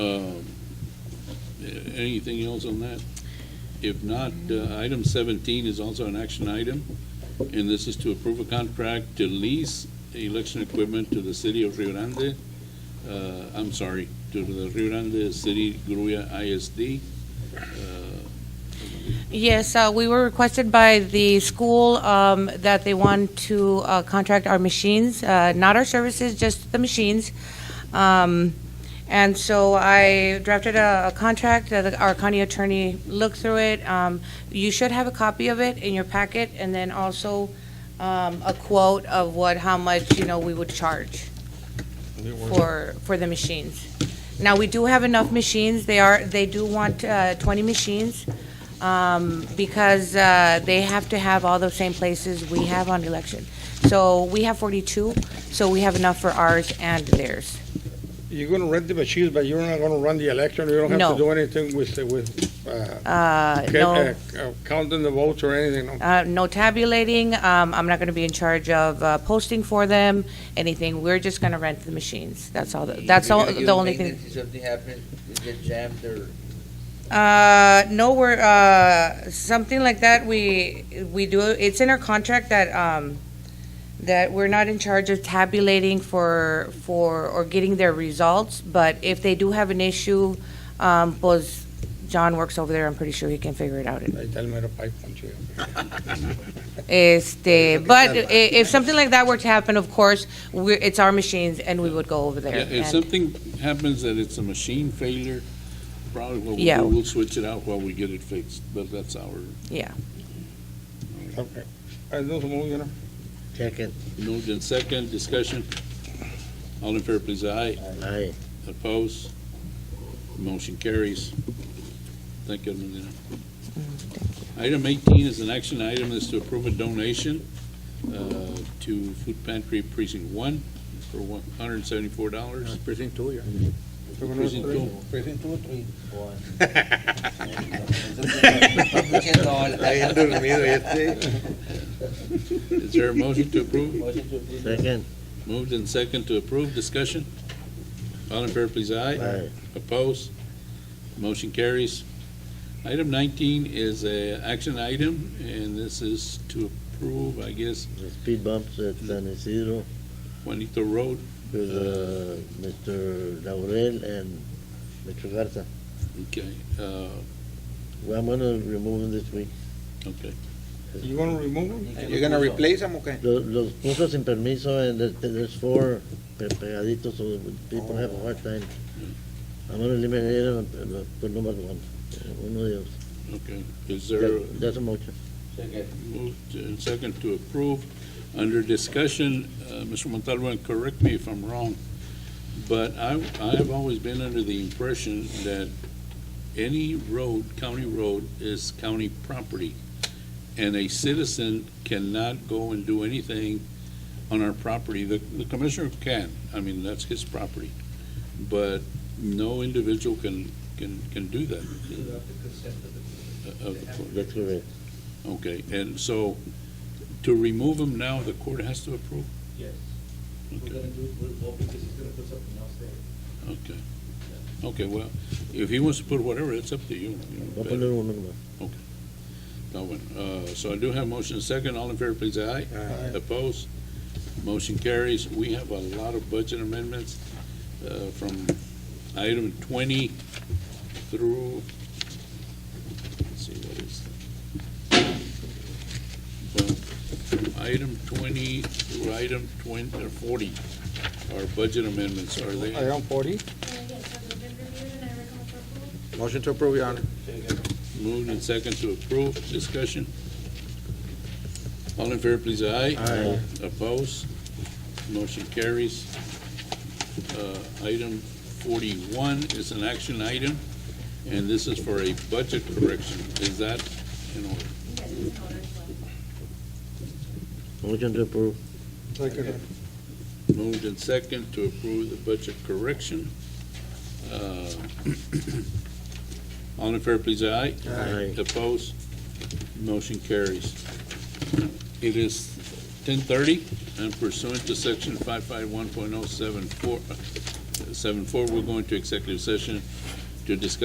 Um, a- Anything else on that? If not, uh, item 17 is also an action item, and this is to approve a contract to lease election equipment to the city of Rio Grande, uh, I'm sorry, to the Rio Grande City Gruya ISD. Uh, Yes, uh, we were requested by the school um, that they want to uh, contract our machines, uh, not our services, just the machines. Um, And so I drafted a a contract that our county attorney looked through it. Um, You should have a copy of it in your packet, and then also um, a quote of what, how much, you know, we would charge for, for the machines. Now, we do have enough machines. They are, they do want uh, 20 machines um, because uh, they have to have all the same places we have on election. So we have 42, so we have enough for ours and theirs. You're gonna rent the machines, but you're not gonna run the election, you don't have No. to do anything with, with, uh, Uh, ca- No, uh, uh, counting the votes or anything, no? uh, no tabulating, Um, I'm not going to be in charge of uh, posting for them, anything. We're just going to rent the machines. That's all, the- that's You're all, gonna give the only maintenance thing. If something happens, it gets jammed or Uh, no, we're, uh, something like that, we, we do, it's in our contract that, um, that we're not in charge of tabulating for, for, or getting their results, but if they do have an issue, um, pues, John works over there, I'm pretty sure he can figure it out. I tell me to pipe punch you. Este, but i- if something like that were to happen, of course, we're, it's our machines and we would go over there. yeah, If and- something happens that it's a machine failure, probably what we'll Yeah. do, we'll switch it out while we get it fixed, but that's our Okay. I do move, you know? Second. Moved in second, discussion. All in favor, please, aye. Uh, Aye. Opposed? Motion carries. Thank you, Medina. Item 18 is an action item, is to approve a donation uh, to Food Pantry Precinct 1 for $174. Precinct two, yeah. You're gonna- Precinct two. Precinct two, three. one. Escuchen Ahí todo. dormido este. Is there a motion to approve? Motion to approve. Second. Moved in second to approve, discussion. All in favor, please, aye. Aye. Opposed? Motion carries. Item 19 is a action item, and this is to approve, I guess, The speed bumps at San Isidro Juanito Road. with, uh, Mr. Laurel and Mr. Garza. Okay, uh, Well, I'm gonna remove them this week. okay. You gonna remove them? You're gonna replace them, okay? Los, los puso sin permiso and there- there's four pe- pegaditos, so people have a hard time. I'm gonna eliminate them, uh, put number one, uno de ellos. Okay, is there a That's a motion. moved and second to approve? Under discussion, uh, Mr. Montalvo, and correct me if I'm wrong, but I, I have always been under the impression that any road, county road, is county property, and a citizen cannot go and do anything on our property. The, the commissioner can, I mean, that's his property, but no individual can, can, can do that. Uh, of course. That's correct. Okay, and so to remove them now, the court has to approve? Yes. We're Okay, gonna do, it- we'll, well, because he's gonna put something else there. okay. Okay, well, if he wants to put whatever, it's up to you. Voy a poner uno nomás. That one. Uh, So I do have motion second. All in favor, please, aye. Aye. Opposed? Motion carries. We have a lot of budget amendments uh, from item 20 through, let's see, what is that? Well, Item 20 through item 20, or 40 are budget amendments. Are they? I am forty. Motion to approve, Your Honor. Moved and second to approve, discussion. All in favor, please, aye. Aye. Opposed? Motion carries. Uh, Item forty-one is an action item, and this is for a budget correction. Is that in order? Motion to approve. Second. Moved and second to approve the budget correction. Uh, All in favor, please, aye. Aye. Opposed? Motion carries. It is ten thirty, and pursuant to section five five one point oh seven four, seven four, we're going to executive session to discuss